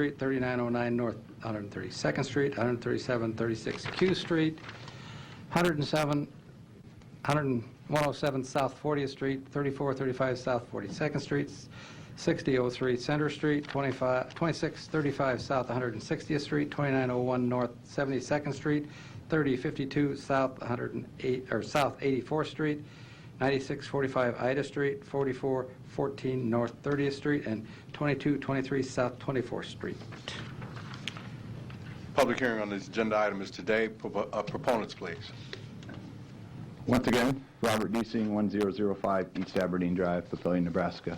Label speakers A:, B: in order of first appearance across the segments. A: Street, 3909 North 132nd Street, 137, 36 Q Street, 107, 100 107 South 40th Street, 34, 35 South 42nd Street, 6003 Center Street, 25 2635 South 160th Street, 2901 North 72nd Street, 3052 South 108, or South 84th Street, 9645 Ida Street, 4414 North 30th Street, and 2223 South 24th Street.
B: Public hearing on this agenda item is today. Propo- uh, Proponents, please.
C: Once again, Robert Deasing, 1005 East Aberdeen Drive, Papillion, Nebraska.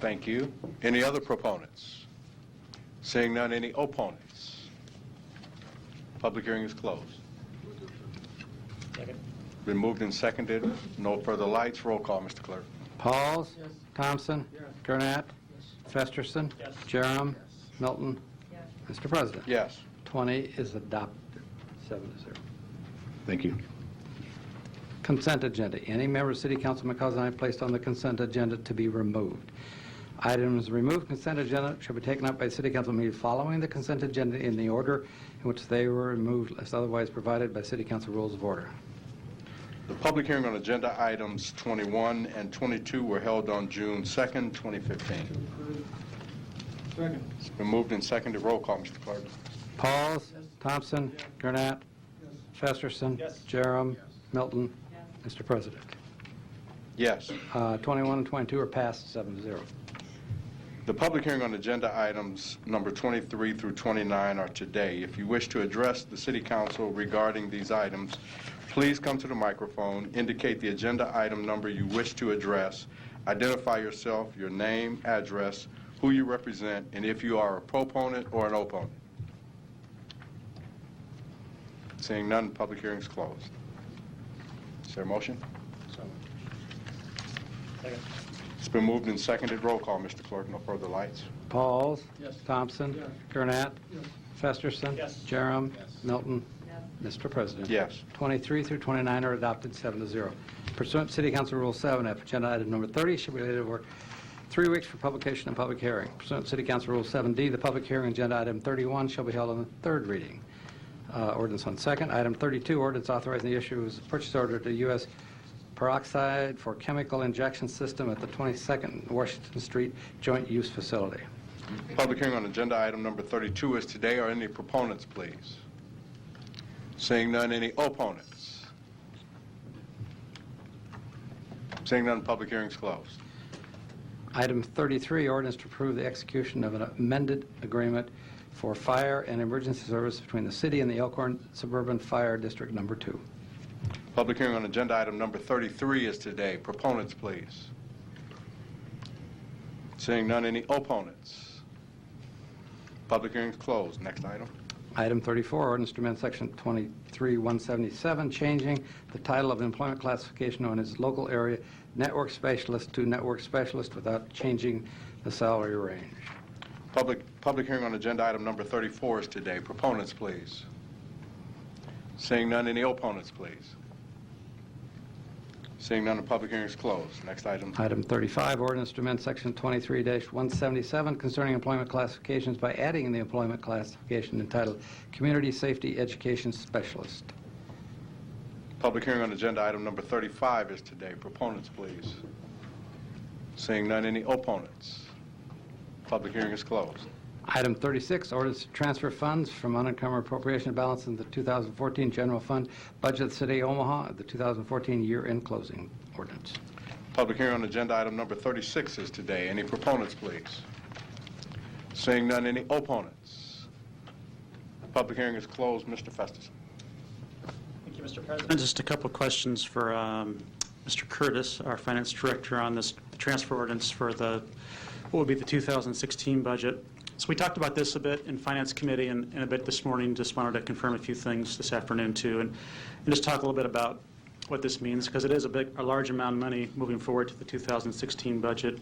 B: Thank you. Any other proponents? Seeing none, any opponents? Public hearing is closed. Been moved and seconded. No further lights. Roll call, Mr. Clerk.
A: Pauls. Thompson. Gurnett. Festerson. Jerem. Milton. Mr. President.
B: Yes.
A: 20 is adopted, seven to zero.
C: Thank you.
A: Consent agenda. Any member of City Council McCausland I placed on the consent agenda to be removed. Items removed consent agenda shall be taken up by City Council meeting following the consent agenda in the order in which they were removed, unless otherwise provided by City Council Rules of Order.
B: The public hearing on agenda items 21 and 22 were held on June 2nd, 2015.
D: Second.
B: It's been moved and seconded. Roll call, Mr. Clerk.
A: Pauls. Thompson. Gurnett. Festerson.
D: Yes.
A: Jerem. Milton. Mr. President.
B: Yes.
A: Uh, 21 and 22 are passed, seven to zero.
B: The public hearing on agenda items number 23 through 29 are today. If you wish to address the city council regarding these items, please come to the microphone, indicate the agenda item number you wish to address, identify yourself, your name, address, who you represent, and if you are a proponent or an opponent. Seeing none, public hearing is closed. Is there a motion?
D: Second.
B: It's been moved and seconded. Roll call, Mr. Clerk. No further lights.
A: Pauls.
D: Yes.
A: Thompson.
D: Yes.
A: Gurnett. Festerson.
D: Yes.
A: Jerem.
D: Yes.
A: Milton. Mr. President.
B: Yes.
A: 23 through 29 are adopted, seven to zero. Pursuant to City Council Rule 7F, agenda item number 30 should be laid over three weeks for publication and public hearing. Pursuant to City Council Rule 7D, the public hearing on agenda item 31 shall be held on the third reading. Uh, Ordinance on second. Item 32, ordinance authorizing the issue of purchase order to U.S. peroxide for chemical injection system at the 22nd Washington Street Joint Use Facility.
B: Public hearing on agenda item number 32 is today. Are any proponents, please? Seeing none, any opponents? Seeing none, public hearing is closed.
A: Item 33, ordinance to approve the execution of an amended agreement for fire and emergency service between the city and the Elkhorn Suburban Fire District Number Two.
B: Public hearing on agenda item number 33 is today. Proponents, please. Seeing none, any opponents? Public hearing is closed. Next item.
A: Item 34, ordinance to amend section 23177, changing the title of employment classification known as local area network specialist to network specialist without changing the salary range.
B: Public, public hearing on agenda item number 34 is today. Proponents, please. Seeing none, any opponents, please? Seeing none, the public hearing is closed. Next item.
A: Item 35, ordinance to amend section 23-177 concerning employment classifications by adding the employment classification entitled Community Safety Education Specialist.
B: Public hearing on agenda item number 35 is today. Proponents, please. Seeing none, any opponents? Public hearing is closed.
A: Item 36, orders to transfer funds from unencumbered appropriation balance in the 2014 general fund budget of the City of Omaha, the 2014 year-end closing ordinance.
B: Public hearing on agenda item number 36 is today. Any proponents, please? Seeing none, any opponents? Public hearing is closed. Mr. Festerson.
D: Thank you, Mr. President.
E: Just a couple of questions for um, Mr. Curtis, our finance director, on this transfer ordinance for the, what would be the 2016 budget. So we talked about this a bit in Finance Committee and and a bit this morning, just wanted to confirm a few things this afternoon, too, and and just talk a little bit about what this means, because it is a big, a large amount of money moving forward to the 2016 budget.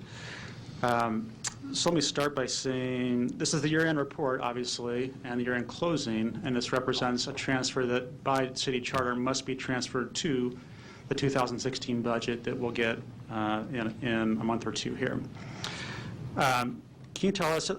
E: Um, So let me start by saying, this is the year-end report, obviously, and the year-end closing, and this represents a transfer that by city charter must be transferred to the 2016 budget that we'll get uh, in in a month or two here. Um, Can you tell us,